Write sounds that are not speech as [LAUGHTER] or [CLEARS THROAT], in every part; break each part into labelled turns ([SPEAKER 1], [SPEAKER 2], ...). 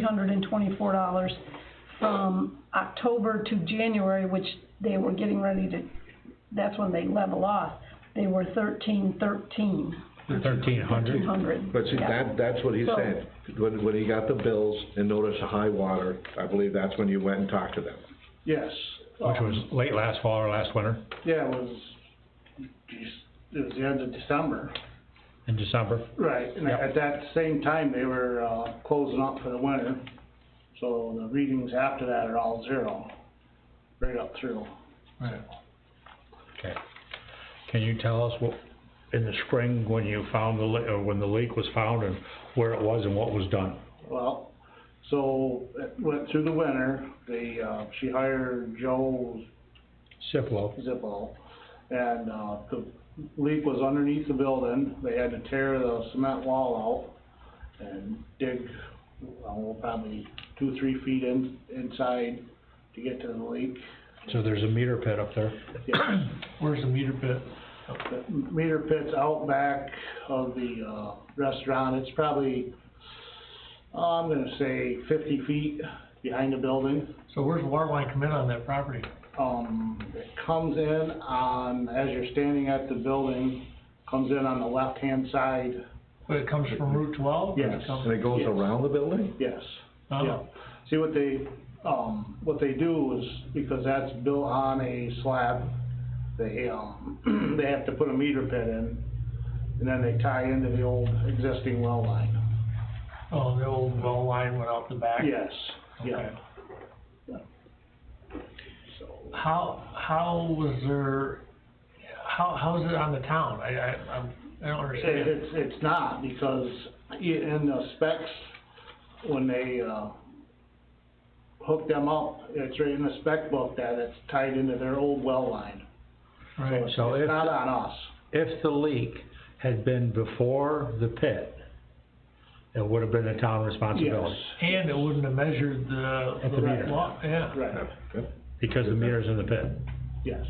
[SPEAKER 1] hundred and twenty-four dollars from October to January, which they were getting ready to, that's when they level off. They were thirteen thirteen,
[SPEAKER 2] Thirteen
[SPEAKER 1] two
[SPEAKER 2] hundred?
[SPEAKER 1] hundred.
[SPEAKER 3] But see, that, that's what he
[SPEAKER 1] So-
[SPEAKER 3] said, when, when he got the bills and noticed a high water, I believe that's when you went and talked to them.
[SPEAKER 4] Yes.
[SPEAKER 2] Which was
[SPEAKER 4] Um,
[SPEAKER 2] late last fall or last winter,
[SPEAKER 4] Yeah, it was, it was the end of December.
[SPEAKER 2] in December.
[SPEAKER 4] Right, and
[SPEAKER 2] Yep.
[SPEAKER 4] at that same time, they were, uh, closing up for the winter, so the readings after that are all zero, right up through.
[SPEAKER 2] Right. Okay. Can you tell us what, in the spring, when you found the leak, or when the leak was found and where it was and what was done?
[SPEAKER 4] Well, so it went through the winter, they, uh, she hired Joe
[SPEAKER 2] Ciplo.
[SPEAKER 4] Zippo, and, uh, the leak was underneath the building, they had to tear the cement wall out and dig, oh, probably two, three feet in, inside to get to the leak.
[SPEAKER 2] So there's a meter pit up there.
[SPEAKER 4] Yeah,
[SPEAKER 5] Where's the meter pit?
[SPEAKER 4] the Meter pit's out back of the, uh, restaurant, it's probably, oh, I'm gonna say fifty feet behind the building.
[SPEAKER 5] So where's the water line come in on that property?
[SPEAKER 4] Um, it comes in on, as you're standing at the building, comes in on the left-hand side,
[SPEAKER 5] But it comes from Route twelve? or it
[SPEAKER 4] Yes.
[SPEAKER 5] comes-
[SPEAKER 3] And it goes
[SPEAKER 4] Yes.
[SPEAKER 3] around the building?
[SPEAKER 4] yes.
[SPEAKER 5] Oh.
[SPEAKER 4] Yeah. See, what they, um, what they do is, because that's built on a slab, they, um, [CLEARS THROAT] they have to put a meter pit in, and then they tie into the old existing well line.
[SPEAKER 5] Oh, the old well line went out the back?
[SPEAKER 4] Yes, yeah.
[SPEAKER 5] Okay.
[SPEAKER 4] So,
[SPEAKER 5] How, how was there, how, how's it on the town? I, I, I'm- I don't
[SPEAKER 4] It,
[SPEAKER 5] understand.
[SPEAKER 4] it's, it's not, because i- in the specs, when they, uh, hook them up, it's right in the spec book that it's tied into their old well line.
[SPEAKER 5] Right,
[SPEAKER 2] So
[SPEAKER 4] It's
[SPEAKER 2] if,
[SPEAKER 4] not on us.
[SPEAKER 2] if the leak had been before the pit, it would have been the town
[SPEAKER 4] Yes,
[SPEAKER 2] responsibility.
[SPEAKER 5] and it wouldn't have measured the.
[SPEAKER 2] At the meter.
[SPEAKER 5] wa- Yeah.
[SPEAKER 4] right,
[SPEAKER 2] Because the meter's in the pit.
[SPEAKER 4] yes,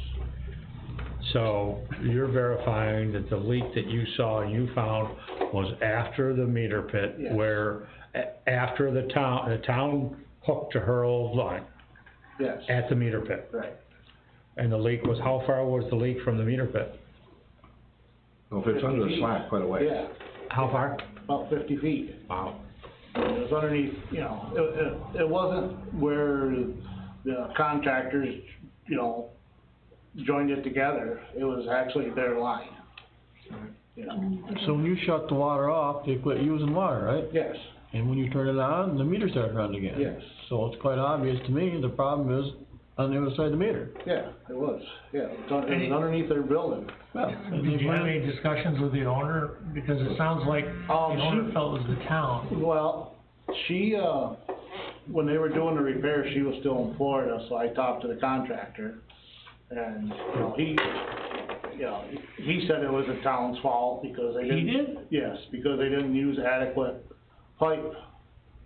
[SPEAKER 2] So you're verifying that the leak that you saw and you found was after the meter pit
[SPEAKER 4] Yes.
[SPEAKER 2] where, a- after the town, the town hooked to her old line
[SPEAKER 4] yes,
[SPEAKER 2] at the meter pit.
[SPEAKER 4] right.
[SPEAKER 2] And the leak was, how far was the leak from the meter pit?
[SPEAKER 3] Well, If it's under the slab, quite a way.
[SPEAKER 4] Yeah,
[SPEAKER 2] How far?
[SPEAKER 4] about fifty feet.
[SPEAKER 2] Wow.
[SPEAKER 4] It was underneath, you know, it, it, it wasn't where the contractors, you know, joined it together. It was actually their line. You know,
[SPEAKER 6] So when you shut the water off, they quit using water, right?
[SPEAKER 4] yes,
[SPEAKER 6] And when you turn it on, the meter started running again.
[SPEAKER 4] Yes.
[SPEAKER 6] So it's quite obvious to me, the problem is on the other side of the meter.
[SPEAKER 4] yeah, it was, yeah, it was un- it was underneath their building.
[SPEAKER 5] Did you have any discussions with the owner? Because it sounds like the
[SPEAKER 4] Um, she-
[SPEAKER 5] owner felt it was the town.
[SPEAKER 4] Well, she, uh, when they were doing the repair, she was still in Florida, so I talked to the contractor. And, you know, he, you know, he said it was the town's fault because they
[SPEAKER 5] He
[SPEAKER 4] didn't.
[SPEAKER 5] did?
[SPEAKER 4] Yes, because they didn't use adequate pipe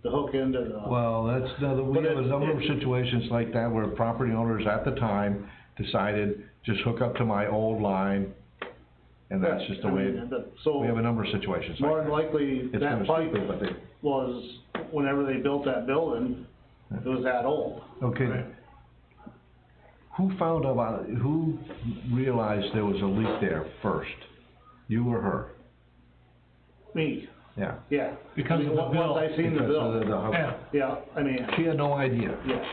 [SPEAKER 4] to hook into the,
[SPEAKER 3] Well, that's, another- we
[SPEAKER 4] But
[SPEAKER 3] have a
[SPEAKER 4] it-
[SPEAKER 3] number of
[SPEAKER 4] it-
[SPEAKER 3] situations like that where property owners at the time decided, just hook up to my old line, and that's just the
[SPEAKER 4] I
[SPEAKER 3] way,
[SPEAKER 4] mean, the- so,
[SPEAKER 3] we have a number of situations
[SPEAKER 4] more than
[SPEAKER 3] like
[SPEAKER 4] likely,
[SPEAKER 3] that. It's kind
[SPEAKER 4] that
[SPEAKER 3] of
[SPEAKER 4] pipe
[SPEAKER 3] stupid, but they,
[SPEAKER 4] was, whenever they built that building, it was that old.
[SPEAKER 3] okay. Who found about, who realized there was a leak there first? You or her?
[SPEAKER 4] Me,
[SPEAKER 3] Yeah.
[SPEAKER 4] yeah.
[SPEAKER 5] Because of the
[SPEAKER 4] Once-
[SPEAKER 5] bill.
[SPEAKER 4] Once I seen the
[SPEAKER 3] Because of
[SPEAKER 4] bill,
[SPEAKER 3] the- the-
[SPEAKER 5] Yeah,
[SPEAKER 4] yeah, I mean,
[SPEAKER 3] She had no idea.
[SPEAKER 4] yes.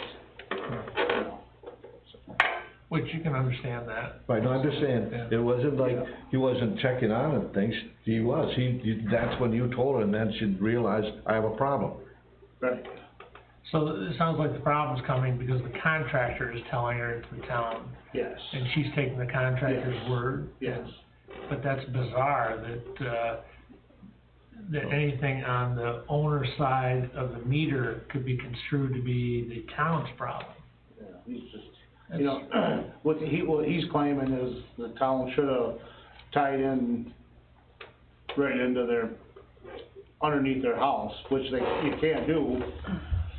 [SPEAKER 5] which you can understand that.
[SPEAKER 3] Right, no, I
[SPEAKER 5] Yeah.
[SPEAKER 3] understand, it wasn't like, he wasn't checking on and things, he was, he, you- that's when you told her, and then she realized, I have a problem.
[SPEAKER 4] Right,
[SPEAKER 5] So it sounds like the problem's coming because the contractor is telling her it's the town,
[SPEAKER 4] yes,
[SPEAKER 5] and she's taking the contractor's
[SPEAKER 4] Yes.
[SPEAKER 5] word.
[SPEAKER 4] yes,
[SPEAKER 5] But that's bizarre that, uh, that anything on the owner's side of the meter could be construed to be the town's problem.
[SPEAKER 4] yeah, he's just, you know, [CLEARS THROAT] what he, what he's claiming is the town should have tied in right into their, underneath their house, which they, you can't do,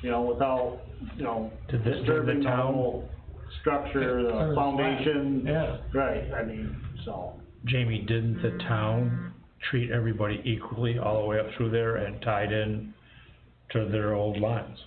[SPEAKER 4] you know, without, you know,
[SPEAKER 2] Did the- did the
[SPEAKER 4] disturbing the
[SPEAKER 2] town-
[SPEAKER 4] whole structure,
[SPEAKER 5] Under
[SPEAKER 4] the
[SPEAKER 5] the
[SPEAKER 4] foundation.
[SPEAKER 5] Yeah.
[SPEAKER 4] Right, I mean, so,
[SPEAKER 2] Jamie, didn't the town treat everybody equally all the way up through there and tied in to their old lines.